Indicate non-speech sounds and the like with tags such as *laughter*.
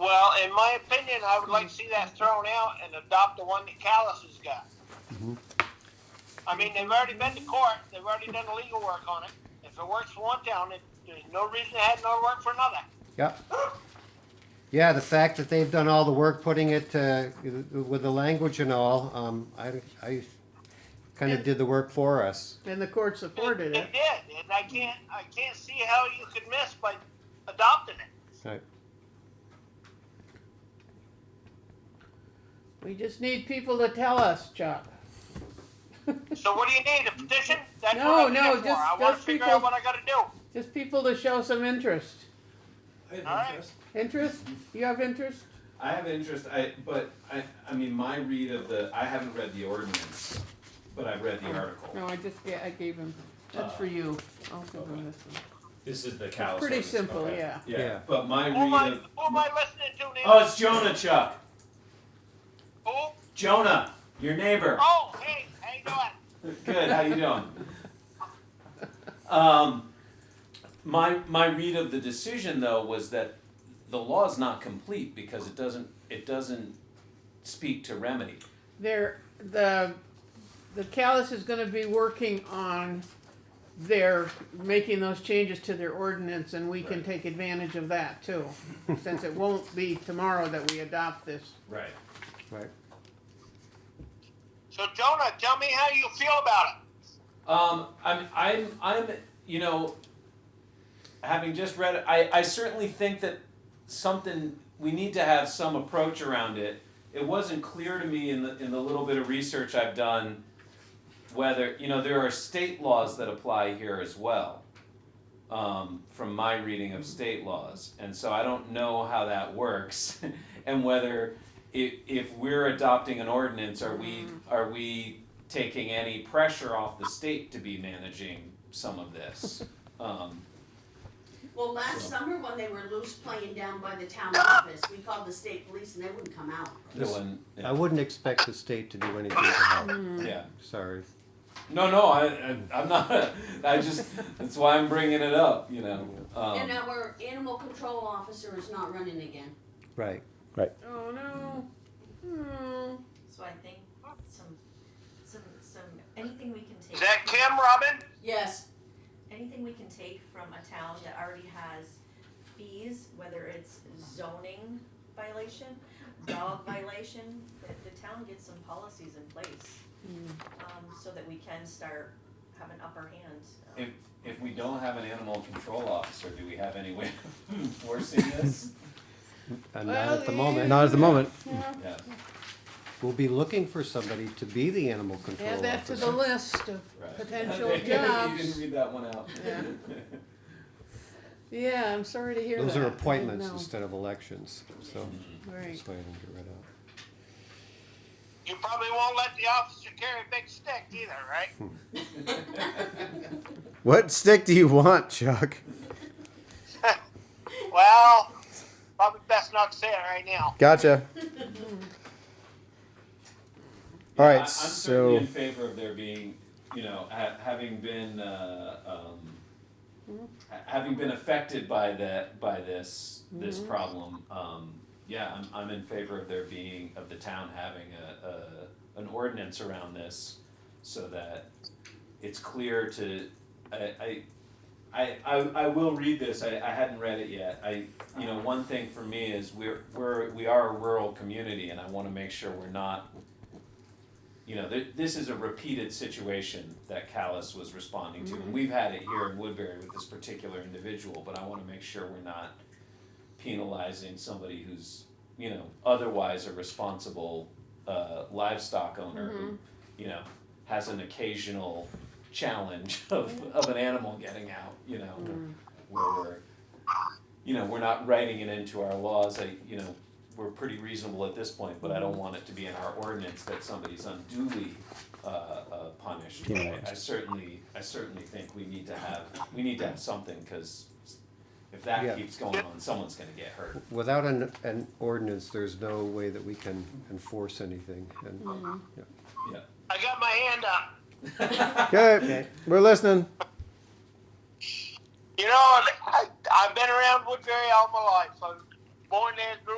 in my opinion, I would like to see that thrown out and adopt the one that Callis has got. Mm-hmm. I mean, they've already been to court, they've already done the legal work on it. If it works for one town, it, there's no reason it had no work for another. Yep. Yeah, the fact that they've done all the work putting it uh, with the language and all, um, I, I kind of did the work for us. And the court supported it. It did, and I can't, I can't see how you could miss by adopting it. Right. We just need people to tell us, Chuck. So what do you need, a petition? That's No, what I'm no, here for. just- I wanna just figure people- out what I gotta do. Just people to show some interest. I have All right. interest. Interest? You have interest? I have interest. I but I I mean my read of the I haven't read the ordinance, but I've read the article. No, I just ga- I gave him. That's for you. I'll give him this one. This is the cow. Pretty simple, yeah. yeah. Yeah. But my Who am I, read of who am I listening to oh, now? it's Jonah Chuck. Who? Jonah, your neighbor. Oh, hey, how you doing? Good. How you doing? Um, my my read of the decision though was that the law is not complete because it doesn't it doesn't speak to remedy. There, the, the callus is gonna be working on their, making those changes to their ordinance and we can Right. take advantage of that too. Since it won't be tomorrow that we adopt this. Right. Right. So Jonah, tell me how you feel about it. Um, I'm, I'm, I'm, you know, having just read it, I, I certainly think that something, we need to have some approach around it. It wasn't clear to me in the, in the little bit of research I've done whether, you know, there are state laws that apply here as well. Um, from my reading of state laws, and so I don't know how that works *laughs* and whether if, if we're adopting an ordinance, are we, are we taking any pressure off the state to be managing some of this? Um, Well, last summer when they were loose playing down by the town office, we called the state police and they wouldn't come out. no one, I wouldn't expect the state to do anything to help. Mm-hmm. yeah, Sorry. no, no, I, I, I'm not, *laughs* I just, that's why I'm bringing it up, you know, And uh, um, our animal control officer is not running again. Right. Oh, no. Oh, No. So I think some, some, some, anything we can take. Is that Kim, Robin? Yes, Anything we can take from a town that already has fees, whether it's zoning violation, *coughs* dog violation, that the town gets some policies in place. Um, so that we can start, have an upper hand. um, if, if we don't have an animal control officer, do we have any way of *laughs* enforcing this? Uh, not Well, at the you- moment. Not at the moment. Yeah, Yeah, We'll be looking for somebody to be the animal control Add that to the officer. list of right. potential *laughs* You didn't jobs. read that one out. Yeah. *laughs* Yeah, I'm sorry to hear that. Those I are didn't appointments know. instead of elections, so Right. that's why I didn't get rid of. You probably won't let the officer carry a big stick either, right? What stick do you want, Chuck? Well, probably best not to say it right now. Gotcha. All Yeah, I- right, I'm certainly so in favor of there being, you know, ha- having been, uh, um, ha- having been affected by that, by this, this problem, um, yeah, I'm, I'm in favor of there being, of the town having a, a, an ordinance around this so that it's clear to, I, I, I, I, I will read this, I, I hadn't read it yet, I, you know, one thing for me is we're, we're, we are a rural community and I wanna make sure we're not, you know, th- this is a repeated situation that Callis was responding to, and we've had it here in Woodbury with this particular individual, but I wanna make sure we're not penalizing somebody who's, you know, otherwise a responsible, uh, livestock owner who, you know, has an occasional challenge of, of an animal getting out, you know, where we're, you know, we're not writing it into our laws, I, you know, we're pretty reasonable at this point, but I don't want it to be in our ordinance that somebody's unduly, uh, uh, punished. But I- I certainly, I certainly think we need to have, we need to have something, cause if Yeah. that keeps going on, someone's gonna get hurt. Without an, an ordinance, there's no way that we can enforce anything. And Yeah. I got my hand up. okay, we're listening. You know, I, I've been around Woodbury all my life. I was born there, grew